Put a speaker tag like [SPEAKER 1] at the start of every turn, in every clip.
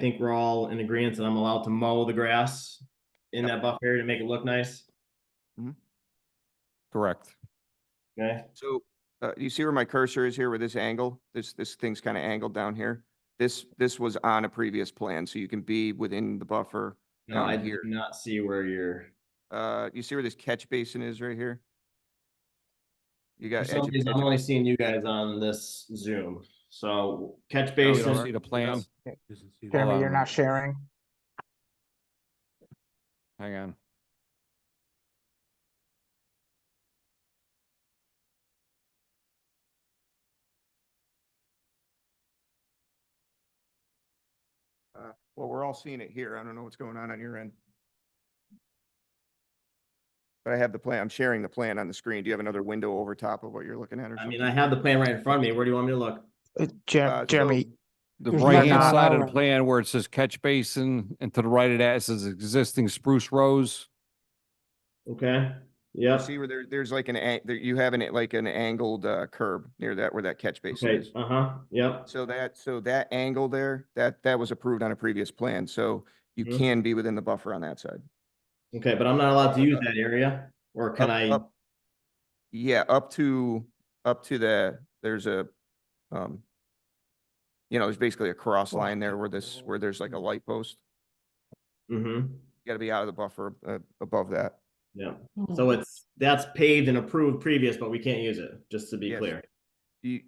[SPEAKER 1] think we're all in agreement that I'm allowed to mow the grass in that buffer area to make it look nice.
[SPEAKER 2] Correct.
[SPEAKER 1] Okay,
[SPEAKER 2] So, uh, you see where my cursor is here with this angle? This, this thing's kind of angled down here. This, this was on a previous plan, so you can be within the buffer.
[SPEAKER 1] no, I
[SPEAKER 2] Down
[SPEAKER 1] do
[SPEAKER 2] here.
[SPEAKER 1] not see where you're.
[SPEAKER 2] Uh, you see where this catch basin is right here? You
[SPEAKER 1] For
[SPEAKER 2] got. edge
[SPEAKER 1] some
[SPEAKER 2] of
[SPEAKER 1] reason, I'm
[SPEAKER 2] catch-
[SPEAKER 1] only seeing you guys on this Zoom, so catch
[SPEAKER 3] Oh, You don't
[SPEAKER 1] basin.
[SPEAKER 3] see the plan?
[SPEAKER 4] Okay.
[SPEAKER 3] Doesn't see the
[SPEAKER 4] Jeremy,
[SPEAKER 3] plan.
[SPEAKER 4] you're not sharing.
[SPEAKER 2] Hang on. Uh, Well, we're all seeing it here. I don't know what's going on on your end. But I have the plan. I'm sharing the plan on the screen. Do you have another window over top of what you're looking at or
[SPEAKER 1] I
[SPEAKER 2] something?
[SPEAKER 1] mean, I have the plan right in front of me. Where do you want me to look?
[SPEAKER 4] Uh,
[SPEAKER 2] Uh, so
[SPEAKER 4] Jer- Jeremy,
[SPEAKER 5] The
[SPEAKER 4] You're
[SPEAKER 5] right hand
[SPEAKER 4] not
[SPEAKER 5] side of the
[SPEAKER 4] allowed.
[SPEAKER 5] plan where it says catch basin and to the right of that it says existing spruce rows.
[SPEAKER 1] Okay,
[SPEAKER 2] You
[SPEAKER 1] yep.
[SPEAKER 2] See where there, there's like an, an- there- you have an, like an angled uh, curb near that, where that catch basin
[SPEAKER 1] Okay,
[SPEAKER 2] is.
[SPEAKER 1] uh huh, yep.
[SPEAKER 2] So that, so that angle there, that, that was approved on a previous plan, so you
[SPEAKER 1] Mhm.
[SPEAKER 2] can be within the buffer on that side.
[SPEAKER 1] Okay, but I'm not allowed to use that area, or can
[SPEAKER 2] Up-
[SPEAKER 1] I?
[SPEAKER 2] up- Yeah, up to, up to the, there's a, um, you know, there's basically a cross line there where this, where there's like a light post.
[SPEAKER 1] Mm-hmm,
[SPEAKER 2] You gotta be out of the buffer, uh, above that.
[SPEAKER 1] yeah. So it's, that's paved and approved previous, but we can't use it, just to be
[SPEAKER 2] Yes.
[SPEAKER 1] clear.
[SPEAKER 2] You,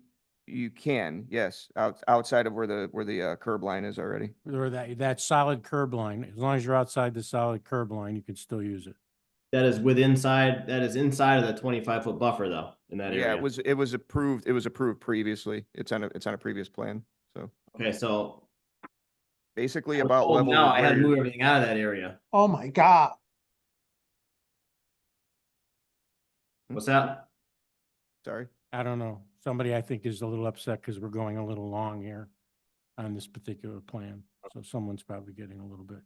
[SPEAKER 2] you can, yes, out, outside of where the, where the uh, curb line is already.
[SPEAKER 3] Or that, that solid curb line, as long as you're outside the solid curb line, you can still use it.
[SPEAKER 1] That is with inside, that is inside of the twenty-five foot buffer though, in that
[SPEAKER 2] Yeah,
[SPEAKER 1] area.
[SPEAKER 2] it was, it was approved, it was approved previously. It's on a, it's on a previous plan, so
[SPEAKER 1] Okay, so.
[SPEAKER 2] basically
[SPEAKER 1] I was
[SPEAKER 2] about
[SPEAKER 1] told
[SPEAKER 2] level.
[SPEAKER 1] Now
[SPEAKER 2] with
[SPEAKER 1] I
[SPEAKER 2] where
[SPEAKER 1] had to
[SPEAKER 2] your-
[SPEAKER 1] move everything out of that area.
[SPEAKER 4] oh my God,
[SPEAKER 2] Hmm?
[SPEAKER 1] What's that?
[SPEAKER 2] Sorry.
[SPEAKER 3] I don't know. Somebody I think is a little upset because we're going a little long here on this particular plan. So someone's probably getting a little bit.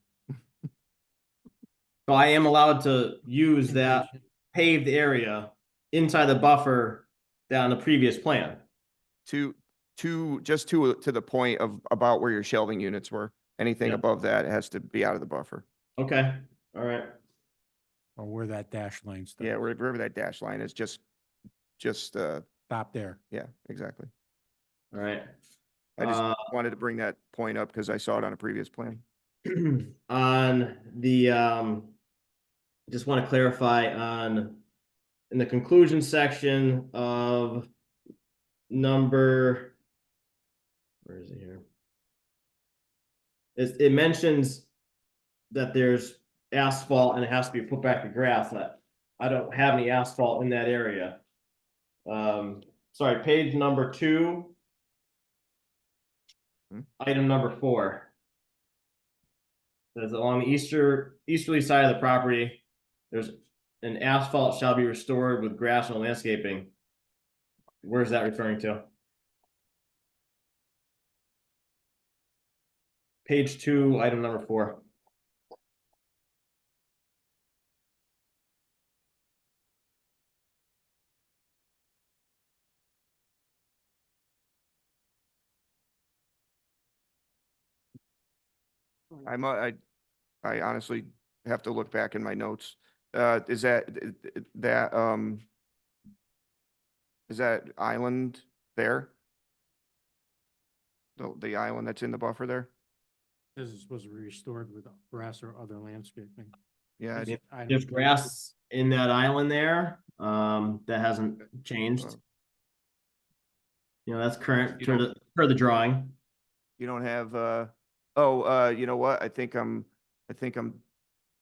[SPEAKER 1] So I am allowed to use that paved area inside the buffer down the previous plan.
[SPEAKER 2] to, to, just to, to the point of about where your shelving units were. Anything
[SPEAKER 1] Yeah.
[SPEAKER 2] above that has to be out of the buffer.
[SPEAKER 1] Okay, all right.
[SPEAKER 3] Or where that dash line stuff.
[SPEAKER 2] Yeah, where- wherever that dash line is, just, just, uh,
[SPEAKER 3] Stop there.
[SPEAKER 2] yeah, exactly.
[SPEAKER 1] All right.
[SPEAKER 2] I just
[SPEAKER 1] Uh,
[SPEAKER 2] wanted to bring that point up because I saw it on a previous plan.
[SPEAKER 1] on the, um, just want to clarify on, in the conclusion section of number, where is it here? It, it mentions that there's asphalt and it has to be put back to grass. and I, I don't have any asphalt in that area. Um, sorry, page number two.
[SPEAKER 2] Hmm.
[SPEAKER 1] Item number four. Says along the easter, easterly side of the property, there's an asphalt shall be restored with grass and landscaping. Where's that referring to? Page two, item number four.
[SPEAKER 2] I'm, uh, I, I honestly have to look back in my notes. Uh, is that, th- th- that, um, is that island there? The, the island that's in the buffer there?
[SPEAKER 3] This is supposed to be restored with grass or other landscaping.
[SPEAKER 2] Yeah,
[SPEAKER 1] Is
[SPEAKER 2] it's-
[SPEAKER 1] it-
[SPEAKER 3] I
[SPEAKER 1] There's
[SPEAKER 3] don't-
[SPEAKER 1] grass in that island there, um, that hasn't changed. You know, that's current,
[SPEAKER 2] You
[SPEAKER 1] per
[SPEAKER 2] don't-
[SPEAKER 1] the, per the drawing.
[SPEAKER 2] you don't have, uh, oh, uh, you know what? I think I'm, I think I'm,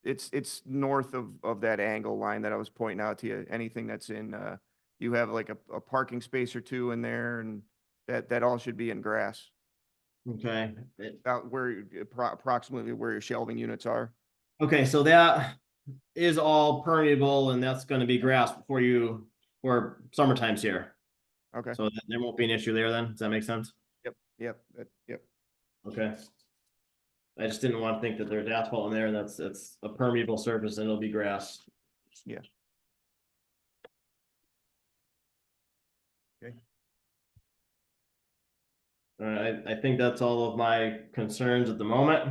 [SPEAKER 2] it's, it's north of, of that angle line that I was pointing out to you. Anything that's in, uh, you have like a, a parking space or two in there and that, that all should be in grass.
[SPEAKER 1] Okay. It-
[SPEAKER 2] About where, you- appro- approximately where your shelving units are.
[SPEAKER 1] Okay, so that is all permeable and that's gonna be grass before you, for summertime's here.
[SPEAKER 2] Okay,
[SPEAKER 1] So that- there won't be an issue there then. Does that make sense?
[SPEAKER 2] yep, that- yep.
[SPEAKER 1] Okay. I just didn't want to think that there's asphalt in there and that's, that's a permeable surface and it'll be grass. All right, I, I think that's all of my concerns at the moment.